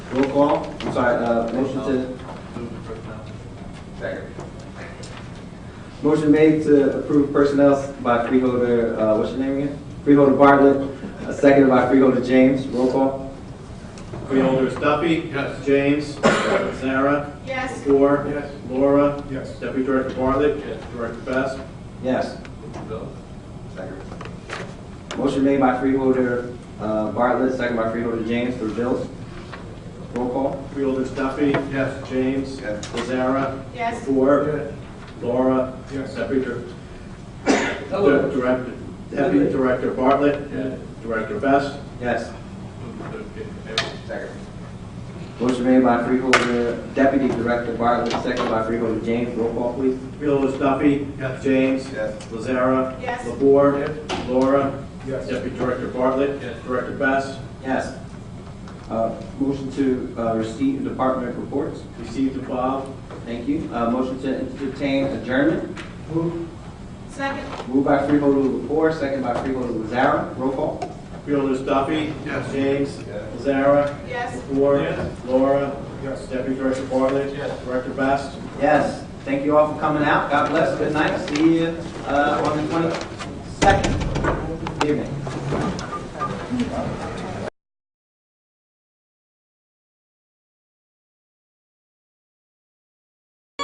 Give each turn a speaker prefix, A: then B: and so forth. A: Roll call, I'm sorry, uh, motion to,
B: Move to personnel.
A: Second. Motion made to approve personnel by freeholder, uh, what's your name again? Freeholder Bartlett, uh, seconded by freeholder James, roll call.
C: Freeholders Duffy.
B: Yes.
C: James. Sarah.
D: Yes.
C: Orr.
B: Yes.
C: Laura.
B: Yes.
C: Deputy Director Bartlett.
B: Yes.
C: Director Best.
A: Yes.
B: Move to bill.
A: Second. Motion made by freeholder, uh, Bartlett, seconded by freeholder James for bills. Roll call.
C: Freeholders Duffy.
B: Yes.
C: James.
A: Yes.
C: Sarah.
D: Yes.
C: Orr.
B: Yes.
C: Laura.
B: Yes.
C: Deputy Dir-
A: Hello.
C: Director, Deputy Director Bartlett.
B: Yes.
C: Director Best.
A: Yes.
B: Move to certificate.
A: Second. Motion made by freeholder deputy director Bartlett, seconded by freeholder James, roll call please.
C: Freeholders Duffy.
B: Yes.
C: James.
A: Yes.
C: Lazara.
D: Yes.
C: Labor. Laura.
B: Yes.
C: Deputy Director Bartlett.
B: Yes.
C: Director Best.
A: Yes. Uh, motion to, uh, receive department reports.
C: Received and filed.
A: Thank you. Uh, motion to entertain adjournment.
D: Second.
A: Moved by freeholder Lepore, second by freeholder Lazara. Roll call.
C: Freeholders Duffy.
B: Yes.
C: James.
B: Yes.
C: Lazara.
D: Yes.
C: Ford.
B: Yes.
C: Laura.
B: Yes.
C: Deputy Director Bartlett.
B: Yes.
C: Director Best.
A: Yes. Thank you all for coming out. God bless. Good night. See you, uh, on the twenty-second. Evening.